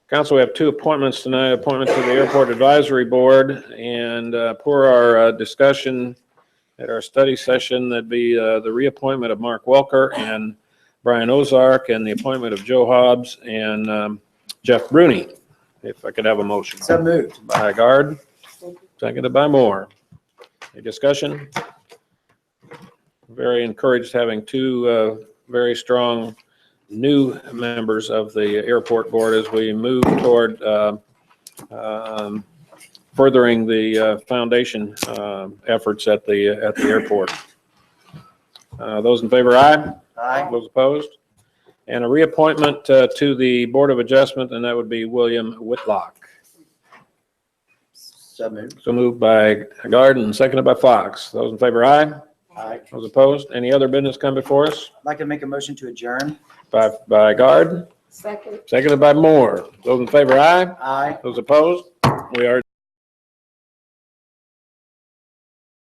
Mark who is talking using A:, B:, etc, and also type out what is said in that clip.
A: Council, we have two appointments tonight, appointment to the Airport Advisory Board, and uh, per our uh, discussion at our study session, that'd be uh, the reappointment of Mark Welker and Brian Ozark, and the appointment of Joe Hobbs and um, Jeff Bruni. If I could have a motion.
B: So moved.
A: By Guard, seconded by Moore. Any discussion? Very encouraged having two uh, very strong new members of the airport board as we move toward uh, um, furthering the uh, foundation um, efforts at the, at the airport. Uh, Those in favor, aye.
B: Aye.
A: Those opposed? And a reappointment uh, to the Board of Adjustment, and that would be William Whitlock.
B: So moved.
A: So moved by Garden, seconded by Fox. Those in favor, aye.
B: Aye. I'd
A: Those opposed, any other business come before us?
B: like to make a motion to adjourn.
A: By, by Garden,
C: Second.
A: seconded by Moore. Those in favor, aye.
B: Aye.
A: Those opposed, we are